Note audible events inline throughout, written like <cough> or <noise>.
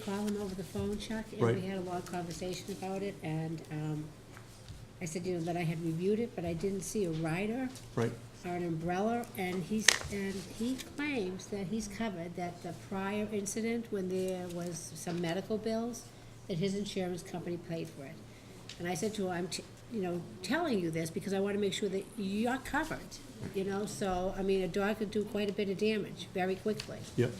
call him over the phone, Chuck, and Right. we had a long conversation about it, and um, I said, you know, that I had reviewed it, but I didn't see a rider right? or an umbrella, and he's, and he claims that he's covered, that the prior incident, when there was some medical bills, that his insurance company paid for it. And I said to him, I'm, t- you know, telling you this because I wanna make sure that you're covered, you know, so, I mean, a dog could do quite a bit of damage very quickly. Yep,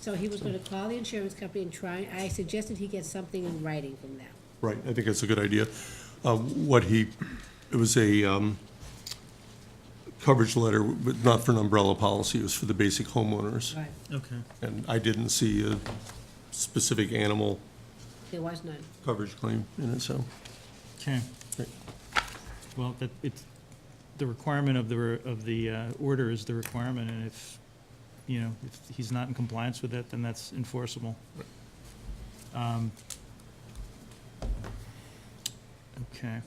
So he was gonna call the insurance company and try, I suggested he get something in writing from them. right, I think that's a good idea. Uh, What he, it was a um, coverage letter, but not for an umbrella policy, it was for the basic homeowners. Right. Okay. And I didn't see a specific animal There was none. coverage claim in it, so. Okay. Great. Well, that, it's, the requirement of the, re- of the uh, order is the requirement, and if, you know, if he's not in compliance with that, then that's enforceable. Um, Okay.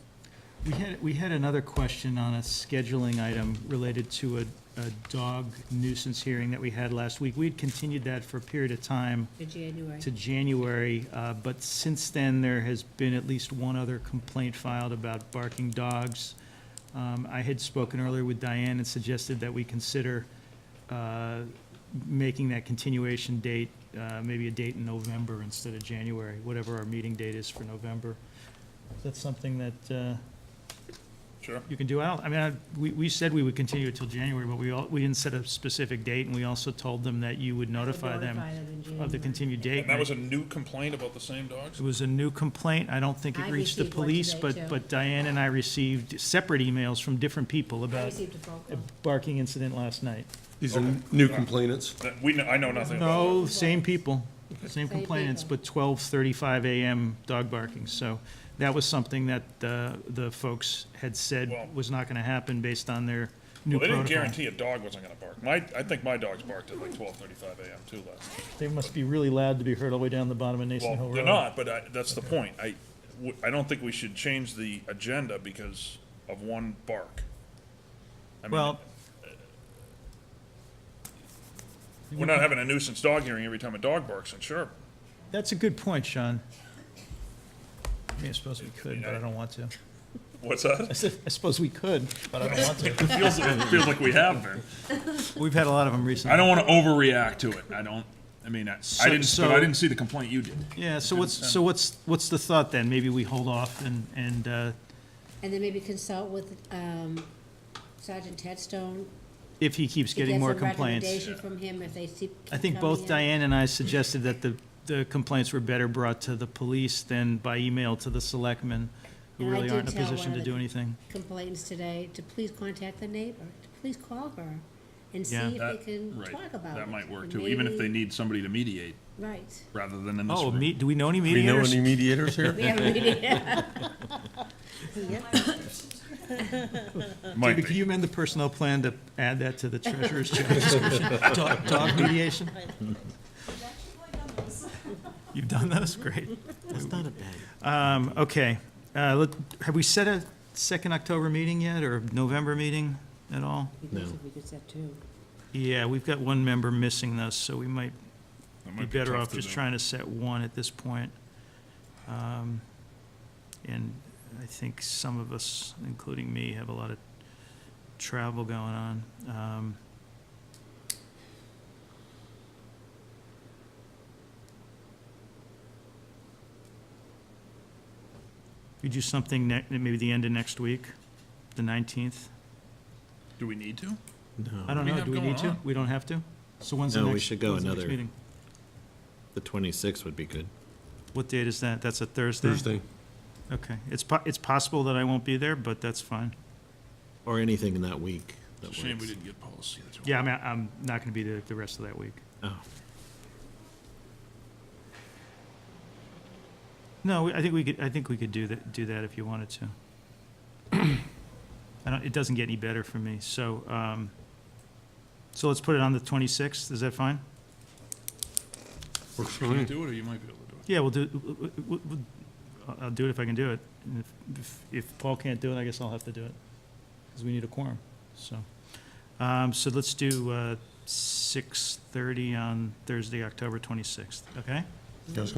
We had, we had another question on a scheduling item related to a, a dog nuisance hearing that we had last week. We'd continued that for a period of time. For January. to January, uh, but since then, there has been at least one other complaint filed about barking dogs. Um, I had spoken earlier with Diane and suggested that we consider uh, making that continuation date, uh, maybe a date in November instead of January, whatever our meeting date is for November. Is that something that uh, Sure. you can do? I don't, I mean, I- we, we said we would continue it till January, but we all, we didn't set a specific date, and we also told them that you would notify them of the continued date. And that was a new complaint about the same dogs? It was a new complaint. I don't think I it reached the received one police, today, too. but, but Diane and I received separate emails from different people I about received a phone a call. barking incident last night. These are Okay. new complainants. That, we, kn- I know nothing about No, same people, same Same complainants, people. but twelve thirty-five AM dog barking. So that was something that the, the folks had Well- said was not gonna happen based on their it. new Well, they protocol. didn't guarantee a dog wasn't gonna bark. My, I think my dogs barked at like twelve thirty-five AM too last. night. They must be really loud to be heard all the way down the bottom of Nason Hill Well, Road. they're not, but I, that's the point. I, w- I don't think we should change the agenda because of one bark. I mean, Well, We're not having a nuisance dog hearing every time a dog barks, and sure, that's a good point, Sean. I mean, I suppose we could, but I don't want to. what's that? <laughs> I said, I suppose we could, but I don't want to. It feels, it feels like we have been. <laughs> We've had a lot of them recently. I don't wanna overreact to it. I don't, I mean, I, I So- didn't, but so- I didn't see the complaint you did. Yeah, so what's, so what's, what's the thought then? Maybe we hold off and, and, uh, And then maybe consult with um, Sergeant Tedstone. if he keeps to get getting more some complaints. Recommendation from him if they see. I think both Diane and I suggested that the, the complaints were better brought to the police than by email to the selectmen, who And I really aren't did in a tell position one to of do the- anything. Complaints today to please contact the neighbor, to please call her and see Yeah. if they That- can right. talk about it. That might work And too, even if they maybe- need somebody to mediate Right. <laughs> rather than in this Oh, room. me, do we know any Do we know mediators? any <laughs> mediators here? We have a meeting. Might David, Can be. you amend the personnel plan to add that to the treasurer's job description? <laughs> Dog dog mediation? You've done those? Great. That's not a bad. Um, okay, uh, let, have we set a second October meeting yet, or November meeting at all? We could set two. Yeah, we've got one member missing though, so we might That be might better tough off to just do. trying to set one at this point. Um, And I think some of us, including me, have a lot of travel going on. Um, We do something ne, maybe the end of next week, the 19th? Do we need to? I don't do we know, have do we going need to? on? We don't have to? So when's the No, next? we should go when's the next another- meeting? The 26th would be good. What date is that? That's a Thursday? Thursday. Okay, it's po- it's possible that I won't be there, but that's fine. Or anything in that week. that It's a shame we works. didn't get policy. that's all. Yeah, I mean, I'm not gonna be there the rest of that week. Oh, No, we- I think we could, I think we could do that, do that if you wanted to. I don't, it doesn't get any better for me, so, um, so let's put it on the twenty-sixth, is that fine? Works for Can you me. do it, or you might be able to do it? Yeah, we'll do, w- w- w- I'll- I'll do it if I can do it. And if- if, if Paul can't do it, I guess I'll have to do it, because we need a quorum, so. Um, so let's do, uh, six-thirty on Thursday, October twenty-sixth, okay? Yes.